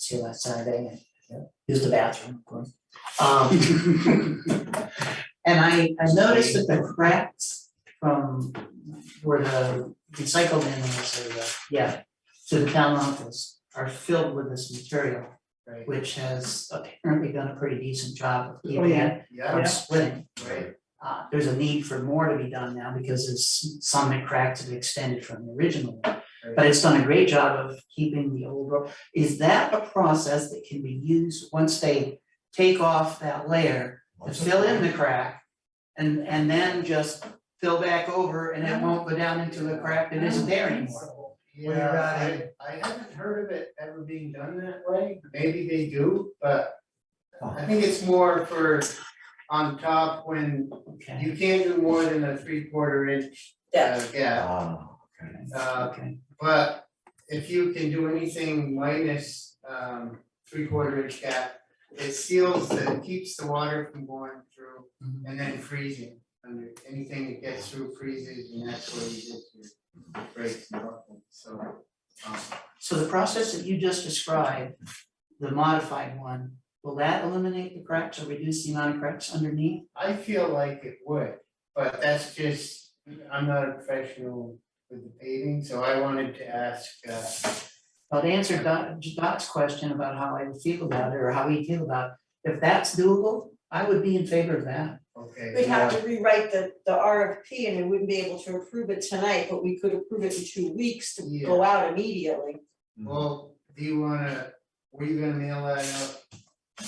see last Saturday, uh, and used the bathroom, of course. Um, and I, I noticed that the cracks from where the recycle bin is, or the, uh, yeah, to the town office are filled with this material, Right. which has apparently done a pretty decent job of Oh, keeping yeah, it yeah, from splitting. right, Uh, there's a need for more to be done now because there's some that cracked and extended from the original. one. But it's done a great job of keeping the old road. Is that a process that can be used once they take off that layer to fill in the crack? And, and then just fill back over and it won't go down into a crack that isn't there anymore? Yeah, I, I haven't heard of it ever being done that way, maybe they do, but I think it's more for on top when Okay, you can't do more than a three quarter inch uh, gap, Ah, uh, okay, but if you can do anything minus um three quarter inch gap, it seals, it keeps the water from going through Mhm. and then freezing under, anything that gets through freezes and that's where you get your breaks and all that, so. um, so the process that you just described, the modified one, will that eliminate the cracks or reduce the amount of cracks underneath? I feel like it would, but that's just, I'm not a professional with the paving, so I wanted to ask, uh, Well, to answer Dot, Dot's question about how I would feel about it or how we feel about, it, if that's doable, I would be in favor of that. okay. We'd have to rewrite the, the RFP and we wouldn't be able to approve it tonight, but we could approve it in two weeks to go out immediately. Well, do you wanna, were you gonna mail that out? uh,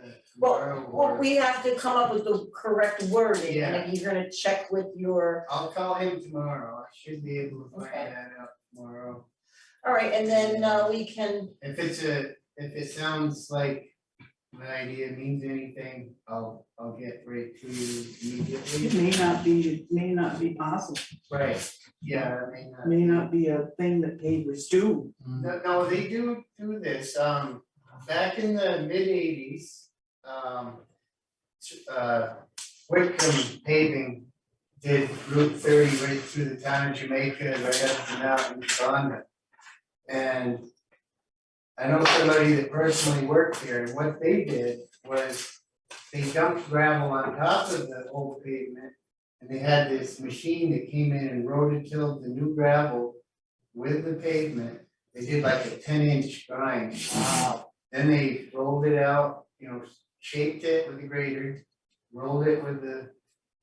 Well, tomorrow Well, or- we have to come up with the correct wording and then you're gonna check with your, I'll call him tomorrow, I should be able to find Okay. that out tomorrow. all right, and then uh, we can, If it's a, if it sounds like my idea means anything, I'll, I'll get right to you It immediately. may not be, it may not be possible, Right, yeah, I mean, It uh, may not be a thing that pavers do. Mm-hmm. No, no, they do do this, um, back in the mid eighties, um, uh, Whitcomb paving did Route thirty right through the town of Jamaica, right up to Mountain Tonga. And I know somebody that personally worked here, and what they did was they dumped gravel on top of the old pavement. And they had this machine that came in and rototilled the new gravel with the pavement they did like a ten inch grind. Then they rolled it out, you know, shaped it with the grader, rolled it with the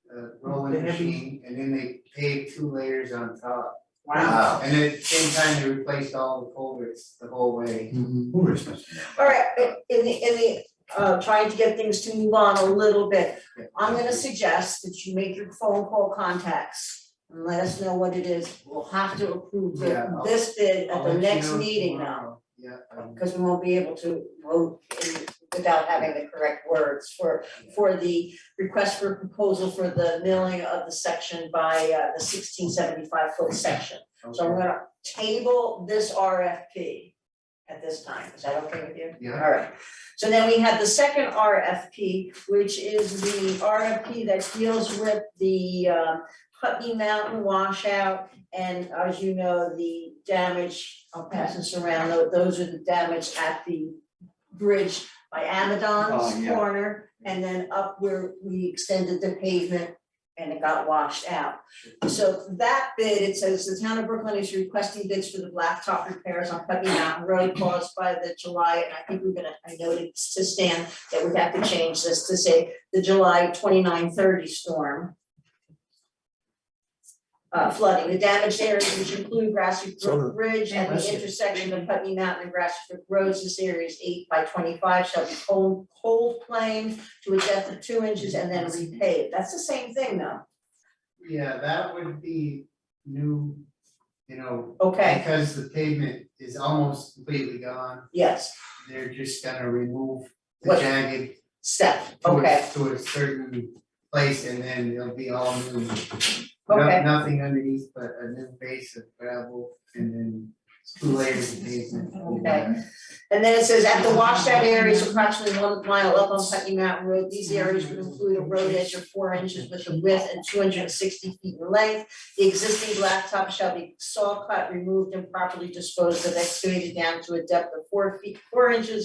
uh The rolling heavy- machine, and then they paved two layers on top. Wow. And at the same time, they replaced all the culverts the whole way. Who is this? all right, i- in the, in the, uh, trying to get things to move on a little bit. I'm gonna suggest that you make your phone call contacts and let us know what it is. We'll have to approve the- Yeah, I'll- this bid I'll at the let you next know meeting now. tomorrow. Yeah, um, because we won't be able to vote in- without having the correct words for, for the request for proposal for the milling of the section by uh, the sixteen seventy-five foot section. So okay. we're gonna table this RFP at this time, is that okay with you? Yeah. Alright, so then we have the second RFP, which is the RFP that deals with the um, Putney Mountain washout. And as you know, the damage, I'll pass this around, tho- those are the damage at the bridge by Oh, Amadon's yeah. corner. And then up where we extended the pavement and it got washed out. So that bid, it says the town of Brooklyn is requesting bids for the blacktop repairs on Putney Mountain Road caused by the July, and I think we're gonna, I noted to Stan that we have to change this to say the July twenty-nine thirty storm. Uh, flooding, the damaged areas which include Grassy Brook Bridge and the intersection of Putney Mountain and Grassy Brook Roads, this area is eight by twenty-five, shall be cold, cold planed to a depth of two inches and then repaved, that's the same thing though, Yeah, that would be new, you know, okay, because the pavement is almost completely gone. yes, they're just gonna remove the What- jagged Steph, to okay, a, to a certain place and then it'll be all new. No- Okay. Nothing underneath but a new base of gravel and then two layers of pavement. Okay. And then it says, at the washout areas approximately one mile up on Putney Mountain Road, these areas would include a road edge of four inches with a width and two hundred and sixty feet in length. The existing blacktop shall be saw cut, removed, and properly disposed of, excavated down to a depth of four feet, four inches